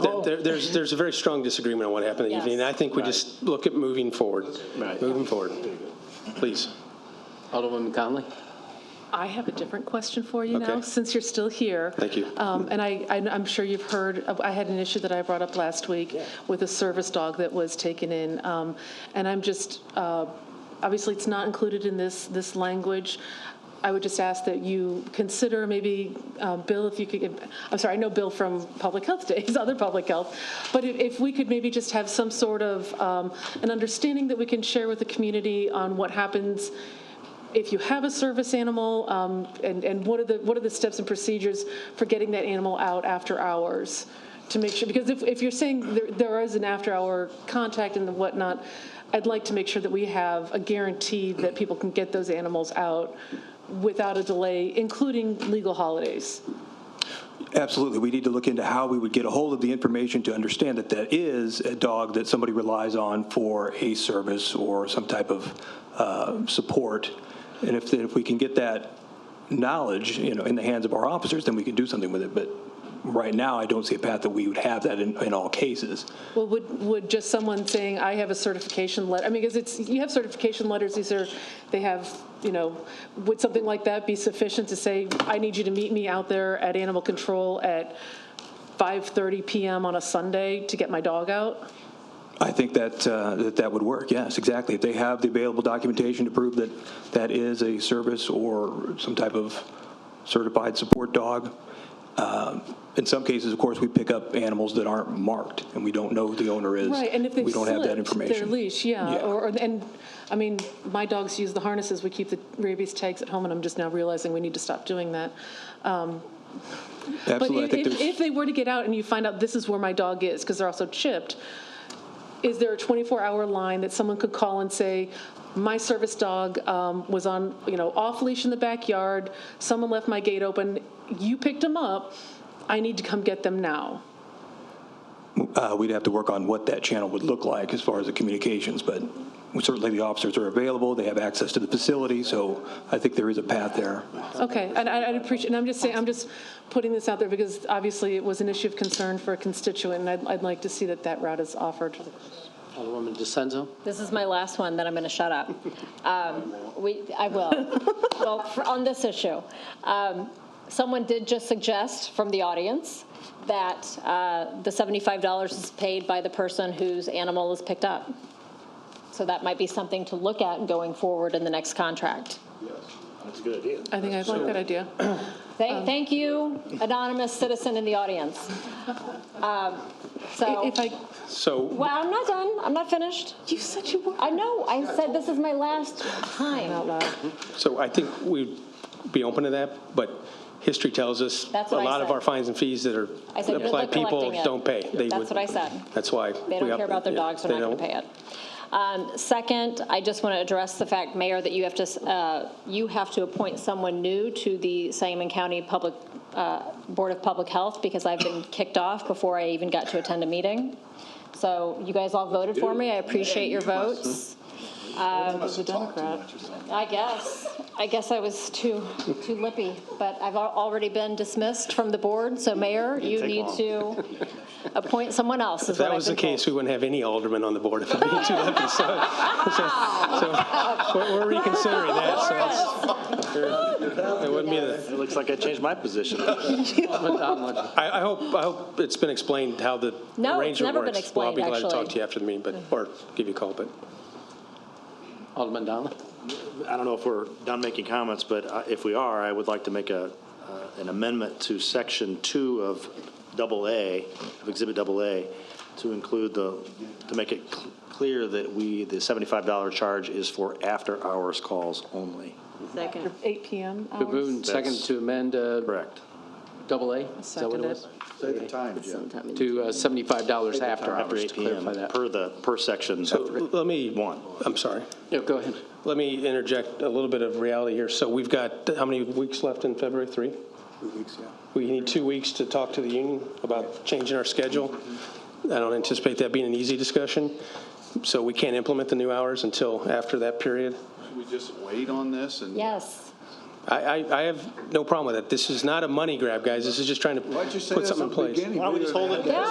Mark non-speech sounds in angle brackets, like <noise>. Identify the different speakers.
Speaker 1: Oh.
Speaker 2: There- there- There's, there's a very strong disagreement on what happened that
Speaker 3: Yes.
Speaker 2: evening, and I think we just look at moving forward.
Speaker 1: Right.
Speaker 2: Moving forward, please.
Speaker 1: Alderwoman Conley?
Speaker 3: I have a different question for you now,
Speaker 2: Okay.
Speaker 3: since you're still here.
Speaker 2: Thank you.
Speaker 4: Uh,
Speaker 3: Um, And I, I- I'm sure you've heard, of- I had an issue that I brought up last week with a service dog that was taken in. Um, And I'm just, uh, obviously, it's not included in this, this language. I would just ask that you consider maybe, uh, Bill, if you could, give- I'm sorry, I know Bill from Public Health Days, <laughs> other public health, but if- if we could maybe just have some sort of, um, an understanding that we can share with the community on what happens if you have a service animal, um, and, and what are the, what are the steps and procedures for getting that animal out after hours? To make sure, because if, if you're saying there, there is an after-hour contact and the whatnot, I'd like to make sure that we have a guarantee that people can get those animals out without a delay, including legal holidays.
Speaker 5: Absolutely. We need to look into how we would get a hold of the information to understand that that is a dog that somebody relies on for a service or some type of uh, support. And if, if we can get that knowledge, you know, in the hands of our officers, then we can do something with it. But right now, I don't see a path that we would have that in, in all cases.
Speaker 3: Well, would, would just someone saying, I have a certification letter, I mean, because it's, you have certification letters, these are, they have, you know, would something like that be sufficient to say, I need you to meet me out there at animal control at 5:30 PM on a Sunday to get my dog out?
Speaker 5: I think that, uh, that that would work, yes, exactly. If they have the available documentation to prove that that is a service or some type of certified support dog. Um, In some cases, of course, we pick up animals that aren't marked and we don't know who the owner is.
Speaker 3: Right, and if they've
Speaker 5: We don't have that
Speaker 3: slipped their
Speaker 5: information.
Speaker 3: leash, yeah,
Speaker 5: Yeah.
Speaker 3: or, or- and, I mean, my dogs use the harnesses, we keep the rabies tags at home, and I'm just now realizing we need to stop doing that. Um, But
Speaker 5: Absolutely, I
Speaker 3: if,
Speaker 5: think
Speaker 3: if,
Speaker 5: there's,
Speaker 3: if they were to get out and you find out this is where my dog is, because they're also chipped, is there a 24-hour line that someone could call and say, my service dog um, was on, you know, off leash in the backyard, someone left my gate open, you picked him up, I need to come get them now?
Speaker 5: uh, we'd have to work on what that channel would look like as far as the communications, but certainly the officers are available, they have access to the facility, so I think there is a path there.
Speaker 3: Okay, and I- I'd appreciate, and I'm just saying, I'm just putting this out there because obviously it was an issue of concern for a constituent, and I'd, I'd like to see that that route is offered.
Speaker 1: Alderwoman DeSenza?
Speaker 4: This is my last one, then I'm going to shut up. Um, We, I will. Well, for- on this issue, um, someone did just suggest from the audience that uh, the $75 is paid by the person whose animal is picked up. So that might be something to look at going forward in the next contract.
Speaker 6: That's a good idea.
Speaker 3: I think I'd like that idea. Um,
Speaker 4: Thank, thank you, anonymous citizen in the audience. Um, So,
Speaker 3: If I,
Speaker 2: So,
Speaker 4: well, I'm not done, I'm not finished.
Speaker 3: you said you were.
Speaker 4: I know, I said this is my last time.
Speaker 3: Out loud.
Speaker 2: so I think we'd be open to that, but history tells us
Speaker 4: That's
Speaker 2: a
Speaker 4: what I
Speaker 2: lot of
Speaker 4: said.
Speaker 2: our fines and fees that are
Speaker 4: I said, good
Speaker 2: applied,
Speaker 4: luck
Speaker 2: people
Speaker 4: collecting it.
Speaker 2: don't pay. They
Speaker 4: That's
Speaker 2: would-
Speaker 4: what I said.
Speaker 2: That's why.
Speaker 4: They don't care about their dogs, they're not going to pay it. Um, Second, I just want to address the fact, Mayor, that you have to, uh, you have to appoint someone new to the Sangamon County Public, uh, Board of Public Health, because I've been kicked off before I even got to attend a meeting. So you guys all voted for me, I appreciate your votes. Um,
Speaker 3: As a Democrat.
Speaker 4: I guess, I guess I was too, too lippy, but I've al- already been dismissed from the board, so Mayor, you need to appoint someone else,
Speaker 2: If
Speaker 4: is what
Speaker 2: that
Speaker 4: I've
Speaker 2: was the
Speaker 4: been told.
Speaker 2: case, we wouldn't have any aldermen on the board if I'm being too
Speaker 4: <laughs>
Speaker 2: lucky. So, so- so we're we're reconsidering <laughs> that, so it's- it wouldn't be the.
Speaker 6: It looks like I changed my position.
Speaker 2: I, I hope, I hope it's been explained how the
Speaker 4: No, it's
Speaker 2: arrangement
Speaker 4: never been
Speaker 2: works. Well, I'll be
Speaker 4: explained,
Speaker 2: glad to talk
Speaker 4: actually. Mm-hmm.
Speaker 2: to you after the meeting, but, or give you a call, but.
Speaker 1: Alderman Donley?
Speaker 6: I don't know if we're done making comments, but uh, if we are, I would like to make a, uh, an amendment to section two of double A, of exhibit double A, to include the, to make it cl- clear that we, the seventy-five dollar charge is for after-hours calls only.
Speaker 3: 8 PM
Speaker 1: Been moved
Speaker 3: hours.
Speaker 1: and seconded to amend uh,
Speaker 6: Correct.
Speaker 1: double A? Is that what it was?
Speaker 7: Say the time, Jim.
Speaker 1: To uh, $75 after
Speaker 6: After
Speaker 1: hours,
Speaker 6: eight
Speaker 1: to
Speaker 6: PM,
Speaker 1: clarify that.
Speaker 6: per the, per section.
Speaker 2: Let me,
Speaker 6: One.
Speaker 2: I'm sorry.
Speaker 1: Yeah, go ahead.
Speaker 2: Let me interject a little bit of reality here. So we've got, how many weeks left in February? Three?
Speaker 7: Two weeks, yeah.
Speaker 2: We need two weeks to talk to the union about changing our schedule. I don't anticipate that being an easy discussion. So we can't implement the new hours until after that period.
Speaker 7: Should we just wait on this and?
Speaker 4: Yes.
Speaker 2: I, I, I have no problem with it. This is not a money grab, guys. This is just trying to
Speaker 7: Why'd you say
Speaker 2: put
Speaker 7: this
Speaker 2: something
Speaker 7: at
Speaker 2: in
Speaker 7: the
Speaker 2: place.
Speaker 7: beginning?
Speaker 6: Why don't we just hold it?
Speaker 4: Yeah.